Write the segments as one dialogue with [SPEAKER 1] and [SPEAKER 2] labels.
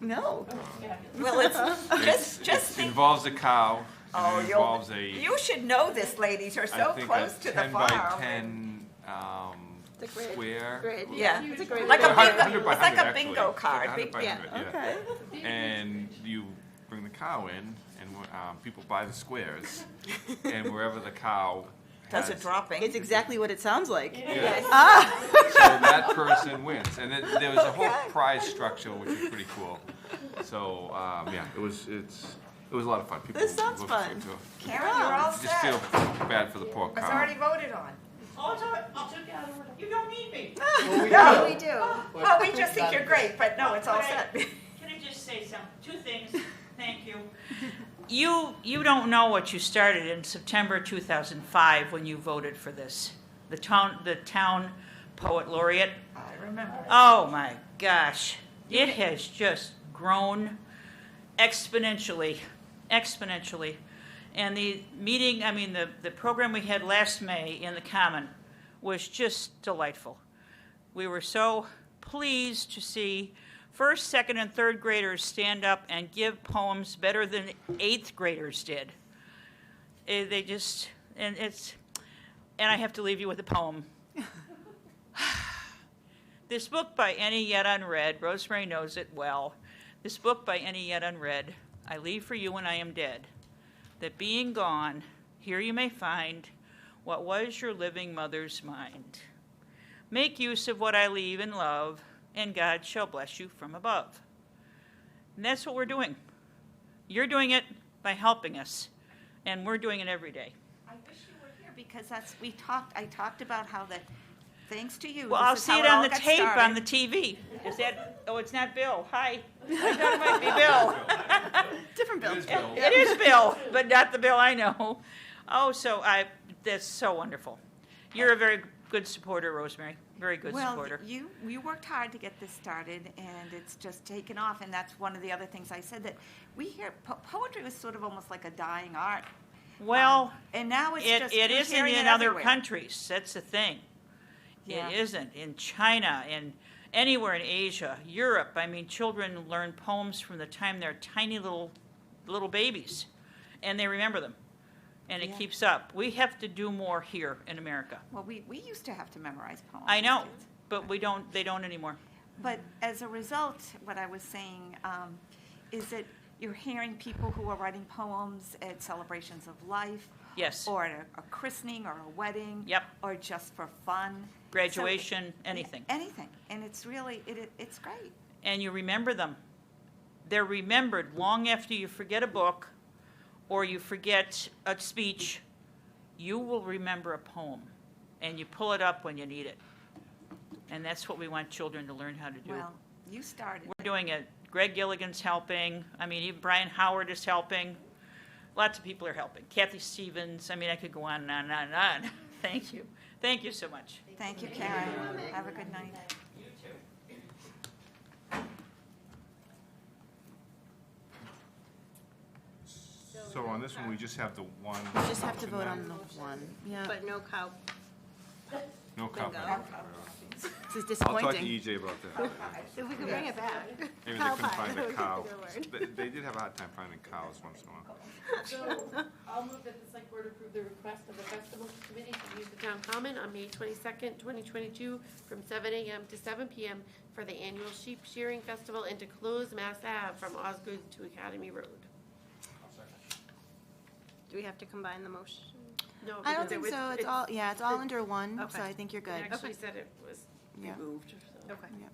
[SPEAKER 1] No.
[SPEAKER 2] Well, it's, just, just
[SPEAKER 3] It
[SPEAKER 2] think,
[SPEAKER 3] involves a cow,
[SPEAKER 2] oh,
[SPEAKER 3] and it
[SPEAKER 2] you'll,
[SPEAKER 3] involves a,
[SPEAKER 2] you should know this, ladies, you're
[SPEAKER 3] I
[SPEAKER 2] so
[SPEAKER 3] think
[SPEAKER 2] close
[SPEAKER 3] a
[SPEAKER 2] to the
[SPEAKER 3] ten by
[SPEAKER 2] farm.
[SPEAKER 3] ten, um,
[SPEAKER 4] The grid.
[SPEAKER 3] square.
[SPEAKER 4] Great.
[SPEAKER 2] Yeah.
[SPEAKER 4] It's a great.
[SPEAKER 2] Like a
[SPEAKER 3] Or a hun- 100
[SPEAKER 2] bingo-
[SPEAKER 3] by
[SPEAKER 2] it's like a
[SPEAKER 3] 100 actually.
[SPEAKER 2] bingo
[SPEAKER 3] It's like
[SPEAKER 2] card,
[SPEAKER 3] 100 by
[SPEAKER 2] big- yeah.
[SPEAKER 3] 100,
[SPEAKER 1] Okay.
[SPEAKER 3] And you bring the cow in, and um, people buy the squares, and wherever the cow
[SPEAKER 2] Does
[SPEAKER 3] has-
[SPEAKER 2] it dropping?
[SPEAKER 1] It's exactly what it sounds like.
[SPEAKER 3] Yeah.
[SPEAKER 1] Ah,
[SPEAKER 3] So that person wins, and then there was a whole
[SPEAKER 1] Okay.
[SPEAKER 3] prize structure, which is pretty cool. So um, yeah, it was it's it was a lot of fun. People
[SPEAKER 1] This sounds
[SPEAKER 3] looked
[SPEAKER 1] fun.
[SPEAKER 3] into it.
[SPEAKER 2] Karen, you're all
[SPEAKER 3] I just feel
[SPEAKER 2] set.
[SPEAKER 3] bad for the poor
[SPEAKER 2] It's
[SPEAKER 3] cow.
[SPEAKER 2] already voted on.
[SPEAKER 5] I'll tell, I'll take out order. You don't need me.
[SPEAKER 4] Yeah, we do.
[SPEAKER 2] Oh, we just think you're great, but no, it's all
[SPEAKER 5] Right.
[SPEAKER 2] set.
[SPEAKER 5] Can I just say some, two things? Thank you. You, you don't know what you started in September 2005 when you voted for this. The town, the town poet laureate.
[SPEAKER 2] I remember.
[SPEAKER 5] Oh my gosh. It has just grown exponentially, exponentially. And the meeting, I mean, the, the program we had last May in the Common was just delightful. We were so pleased to see first, second, and third graders stand up and give poems better than eighth graders did. Eh, They just, and it's, and I have to leave you with a poem. This book by any yet unread, Rosemary knows it well. This book by any yet unread, I leave for you when I am dead. That being gone, here you may find what was your living mother's mind. Make use of what I leave in love, and God shall bless you from above. And that's what we're doing. You're doing it by helping us, and we're doing it every day.
[SPEAKER 2] I wish you were here because that's, we talked, I talked about how that, thanks to you.
[SPEAKER 5] Well,
[SPEAKER 2] this
[SPEAKER 5] I'll
[SPEAKER 2] is
[SPEAKER 5] see
[SPEAKER 2] how
[SPEAKER 5] it on
[SPEAKER 2] all
[SPEAKER 5] the
[SPEAKER 2] got
[SPEAKER 5] tape on
[SPEAKER 2] started.
[SPEAKER 5] the TV. Is that? Oh, it's not Bill. Hi. I thought it might be Bill.
[SPEAKER 1] different bill.
[SPEAKER 3] It is Bill.
[SPEAKER 5] It is Bill, but not the Bill I know. Oh, so I. That's so wonderful. You're a very good supporter, Rosemary. Very good supporter.
[SPEAKER 2] Well, you, you worked hard to get this started, and it's just taken off, and that's one of the other things I said, that we hear, po- poetry was sort of almost like a dying art.
[SPEAKER 5] Well,
[SPEAKER 2] Um, And now it's
[SPEAKER 5] it,
[SPEAKER 2] just,
[SPEAKER 5] it
[SPEAKER 2] we're
[SPEAKER 5] isn't
[SPEAKER 2] hearing it
[SPEAKER 5] in other
[SPEAKER 2] everywhere.
[SPEAKER 5] countries. That's the thing.
[SPEAKER 2] Yeah.
[SPEAKER 5] It isn't in China and anywhere in Asia, Europe. I mean, children learn poems from the time they're tiny little little babies, and they remember them, and it
[SPEAKER 2] Yeah.
[SPEAKER 5] keeps up. We have to do more here in America.
[SPEAKER 2] Well, we, we used to have to memorize poems.
[SPEAKER 5] I
[SPEAKER 2] as
[SPEAKER 5] know,
[SPEAKER 2] kids.
[SPEAKER 5] but we don't. They don't anymore.
[SPEAKER 2] But as a result, what I was saying um, is that you're hearing people who are writing poems at celebrations of life,
[SPEAKER 5] Yes.
[SPEAKER 2] or at a a christening, or a wedding.
[SPEAKER 5] Yep.
[SPEAKER 2] Or just for fun. So-
[SPEAKER 5] Graduation, anything,
[SPEAKER 2] Anything, and it's really, it, it- it's great.
[SPEAKER 5] and you remember them. They're remembered long after you forget a book, or you forget a speech. You will remember a poem, and you pull it up when you need it. And that's what we want children to learn how to do.
[SPEAKER 2] Well, you started.
[SPEAKER 5] We're doing it. Greg Gilligan's helping. I mean, even Brian Howard is helping. Lots of people are helping. Kathy Stevens. I mean, I could go on and on and on and on. Thank you. Thank you so much.
[SPEAKER 2] Thank you, Karen. Have a good night.
[SPEAKER 3] So on this one, we just have the one.
[SPEAKER 1] Just have to
[SPEAKER 3] option
[SPEAKER 1] vote
[SPEAKER 3] now.
[SPEAKER 1] on the one. Yeah,
[SPEAKER 4] But no cow.
[SPEAKER 3] No copy.
[SPEAKER 1] this is
[SPEAKER 3] I'll talk to
[SPEAKER 1] disappointing.
[SPEAKER 3] EJ about that.
[SPEAKER 4] If we could bring it back.
[SPEAKER 3] Maybe they
[SPEAKER 4] Cow
[SPEAKER 3] couldn't
[SPEAKER 4] pie.
[SPEAKER 3] find a cow.
[SPEAKER 4] Good word.
[SPEAKER 3] They, they did have a hard time finding cows once in a while.
[SPEAKER 6] So I'll move that the select board approve the request of the festival committee to use the town common on May twenty-second, twenty twenty-two, from seven AM to seven PM for the annual sheep shearing festival and to close Mass Ave from Osgood to Academy Road.
[SPEAKER 4] Do we have to combine the motion?
[SPEAKER 6] No,
[SPEAKER 1] I don't
[SPEAKER 6] because it
[SPEAKER 1] think
[SPEAKER 6] was-
[SPEAKER 1] so. It's
[SPEAKER 6] it-
[SPEAKER 1] all, yeah, it's all under one, so
[SPEAKER 4] Okay.
[SPEAKER 1] I think you're
[SPEAKER 6] It
[SPEAKER 1] good.
[SPEAKER 6] actually said it was
[SPEAKER 1] Yeah.
[SPEAKER 6] removed, so.
[SPEAKER 4] Okay.
[SPEAKER 1] Yeah.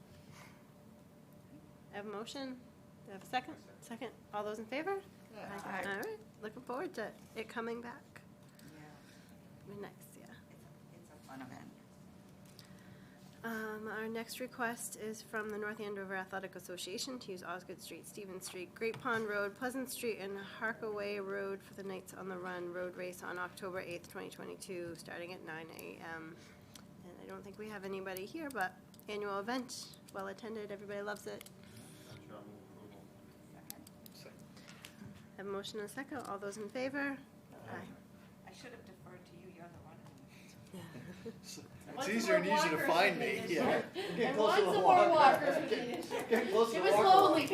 [SPEAKER 4] I have a motion. Do I have a second? Second. All those in favor?
[SPEAKER 6] Aye.
[SPEAKER 4] All right. Looking forward to it coming back. Be Nice, yeah. Um, our next request is from the North Andover Athletic Association to use Osgood Street, Stevens Street, Great Pond Road, Pleasant Street, and Harkaway Road for the Knights on the Run Road Race on October eighth, twenty twenty-two, starting at nine AM. And I don't think we have anybody here, but annual event, well-attended, everybody loves it. Have a motion and a second, all those in favor? Aye.
[SPEAKER 2] I should have deferred to you, you're the one.
[SPEAKER 7] It's easier and easier to find me, yeah. Get
[SPEAKER 6] And
[SPEAKER 7] closer
[SPEAKER 6] lots
[SPEAKER 7] to
[SPEAKER 6] of
[SPEAKER 7] the
[SPEAKER 6] more
[SPEAKER 7] walk.
[SPEAKER 6] walkers we need.
[SPEAKER 7] Get closer to the
[SPEAKER 6] It was
[SPEAKER 7] walk.
[SPEAKER 6] lonely